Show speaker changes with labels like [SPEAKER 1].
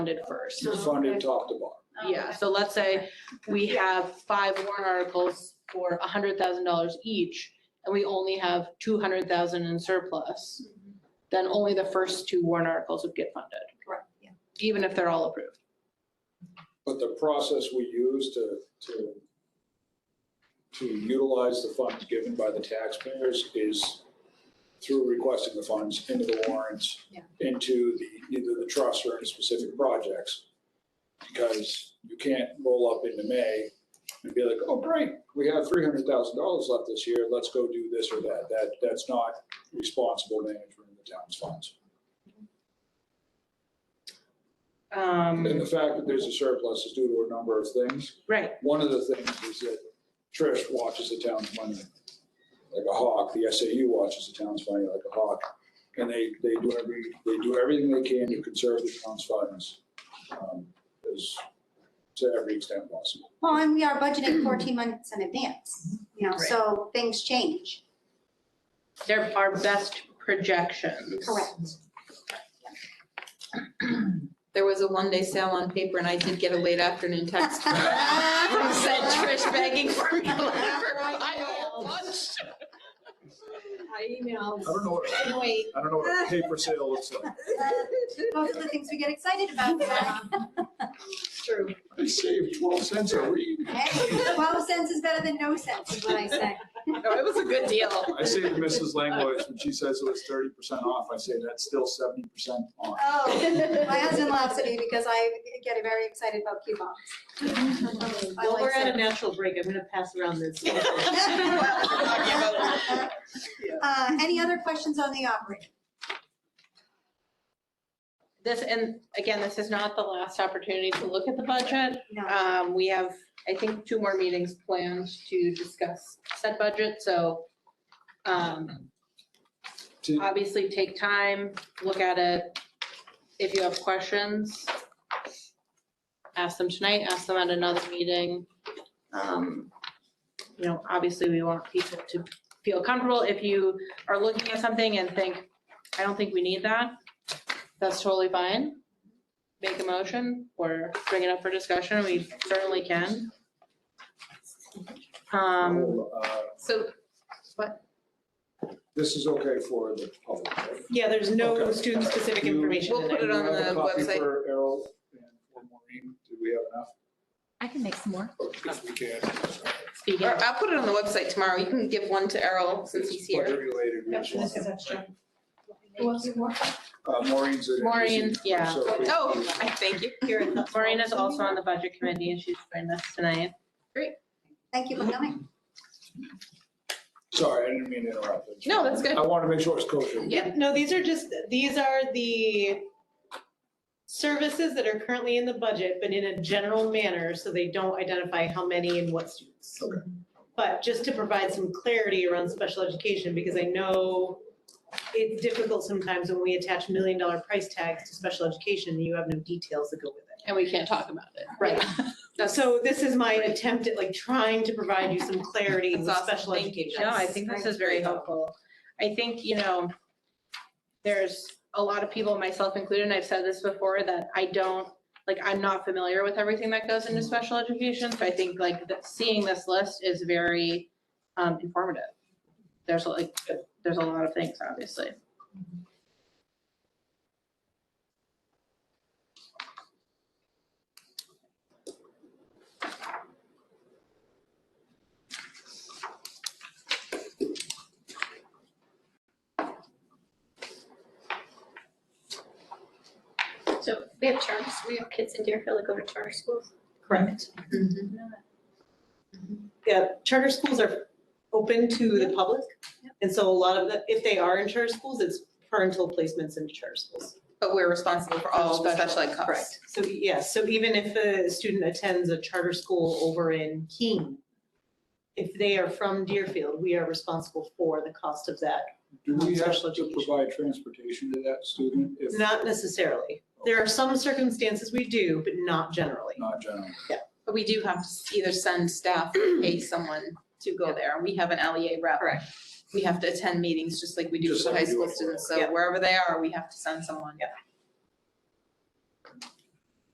[SPEAKER 1] funded first.
[SPEAKER 2] It's
[SPEAKER 3] Oh, okay.
[SPEAKER 2] funded top to bottom.
[SPEAKER 1] Yeah, so let's say we have five warrant articles for hundred thousand dollars each, and we only have two hundred thousand in surplus,
[SPEAKER 3] Mm-hmm.
[SPEAKER 1] then only the first two warrant articles would get funded,
[SPEAKER 3] Correct, yeah.
[SPEAKER 1] even if they're all approved.
[SPEAKER 2] But the process we use to, to, to utilize the funds given by the taxpayers is through requesting the funds into the warrants,
[SPEAKER 3] Yeah.
[SPEAKER 2] into the, either the trust or any specific projects. Because you can't roll up into May and be like, oh, great, we have three hundred thousand dollars left this year, let's go do this or that. That, that's not responsible management of the town's funds. And the
[SPEAKER 1] Um,
[SPEAKER 2] fact that there's a surplus is due to a number of things.
[SPEAKER 1] right,
[SPEAKER 2] One of the things is that Trish watches the town's money like a hawk. The SAU watches the town's money like a hawk. And they, they do every, they do everything they can to conserve the town's funds, um, as, to every extent possible.
[SPEAKER 4] Well, and we are budgeting 14 months in advance, you know,
[SPEAKER 1] Right.
[SPEAKER 4] so things change.
[SPEAKER 1] they're our best projections.
[SPEAKER 4] Correct.
[SPEAKER 3] There was a one-day sale on paper and I did get a late afternoon text from from said Trish begging for me to let her buy a whole bunch.
[SPEAKER 5] I emailed.
[SPEAKER 2] I don't know, what-
[SPEAKER 5] Anyway,
[SPEAKER 2] I don't know what a paper sale looks like.
[SPEAKER 4] Those are the things we get excited about.
[SPEAKER 5] it's true.
[SPEAKER 2] I saved twelve cents a read.
[SPEAKER 4] Hey, 12 cents is better than no cents, is what I say.
[SPEAKER 3] No, it was a good deal.
[SPEAKER 2] I saved Mrs. Langlois when she says it was thirty percent off. I say that's still seventy percent off.
[SPEAKER 4] Oh, my husband laughs at me because I get very excited about coupons. I
[SPEAKER 5] Well,
[SPEAKER 4] like
[SPEAKER 5] we're at a
[SPEAKER 4] sales.
[SPEAKER 5] natural break. I'm gonna pass around this.
[SPEAKER 4] Uh, Any other questions on the operating?
[SPEAKER 1] This, and again, this is not the last opportunity to look at the budget.
[SPEAKER 4] No.
[SPEAKER 1] Um, we have, I think, two more meetings planned to discuss said budget, so, um,
[SPEAKER 2] To-
[SPEAKER 1] obviously take time, look at it. If you have questions, ask them tonight, ask them at another meeting. Um, you know, obviously, we want people to feel comfortable. If you are looking at something and think, I don't think we need that, that's totally fine make a motion or bring it up for discussion, we certainly can. Um,
[SPEAKER 2] Uh,
[SPEAKER 3] So
[SPEAKER 2] This is okay for the public, right?
[SPEAKER 5] Yeah, there's
[SPEAKER 2] no Okay.
[SPEAKER 5] student-specific
[SPEAKER 2] information
[SPEAKER 3] We'll in put it.
[SPEAKER 2] Do we
[SPEAKER 3] on
[SPEAKER 2] have a
[SPEAKER 3] the
[SPEAKER 2] copy
[SPEAKER 3] website.
[SPEAKER 2] For Errol and for Maureen, do we have enough?
[SPEAKER 6] I can make some more.
[SPEAKER 2] If we can.
[SPEAKER 1] speaking,
[SPEAKER 3] or I'll put it on the website tomorrow. You can give one to Errol since he's here.
[SPEAKER 2] Budget related, we just want-
[SPEAKER 3] Who
[SPEAKER 2] Uh, Maureen's. in it.
[SPEAKER 1] Maureen, yeah.
[SPEAKER 2] So we-
[SPEAKER 3] Oh, I thank you.
[SPEAKER 1] Maureen is also on the budget committee and she's joined us tonight.
[SPEAKER 4] Thank you for coming.
[SPEAKER 2] Sorry, I didn't mean to interrupt.
[SPEAKER 3] No, that's good.
[SPEAKER 2] I want to make sure it's kosher.
[SPEAKER 3] Yeah.
[SPEAKER 5] No, these are just, these are the services that are currently in the budget, but in a general manner, so they don't identify how many and what students.
[SPEAKER 2] Okay.
[SPEAKER 5] But just to provide some clarity around special education, because I know it's difficult sometimes when we attach million-dollar price tags to special education, you have no details that go with it.
[SPEAKER 1] And we can't talk about it.
[SPEAKER 5] Right. So this is my attempt at like trying to provide you some clarity with
[SPEAKER 3] That's awesome.
[SPEAKER 5] special
[SPEAKER 3] Thank you.
[SPEAKER 5] education.
[SPEAKER 1] No, I think this is very helpful. I think, you know, there's a lot of people, myself included, and I've said this before, that I don't, like, I'm not familiar with everything that goes into special education. So I think like that seeing this list is very um, informative. There's like, there's a lot of things, obviously.
[SPEAKER 7] So we have charter, we have kids in Deerfield that go to charter schools.
[SPEAKER 5] Correct.
[SPEAKER 3] Mm-hmm.
[SPEAKER 5] Yeah, charter schools are open to the public. And so a lot of the, if they are in charter schools, it's parental placements in charter schools.
[SPEAKER 3] But we're responsible for all the special ed costs.
[SPEAKER 5] So, yeah, so even if a student attends a charter school over in Keene, if they are from Deerfield, we are responsible for the cost of that.
[SPEAKER 2] Do we have
[SPEAKER 5] Special
[SPEAKER 2] to
[SPEAKER 5] education.
[SPEAKER 2] provide transportation to that student if
[SPEAKER 5] Not necessarily. There are some circumstances we do, but not generally.
[SPEAKER 2] not general?
[SPEAKER 3] But we do have to either send staff or pay someone to go there. We have an LEA rep.
[SPEAKER 5] Correct.
[SPEAKER 3] We have to attend meetings just like we do
[SPEAKER 2] Just
[SPEAKER 3] for the
[SPEAKER 2] like we
[SPEAKER 3] high
[SPEAKER 2] do
[SPEAKER 3] school
[SPEAKER 2] it.
[SPEAKER 3] students. So
[SPEAKER 5] Yeah.
[SPEAKER 3] wherever they are, we have to send someone.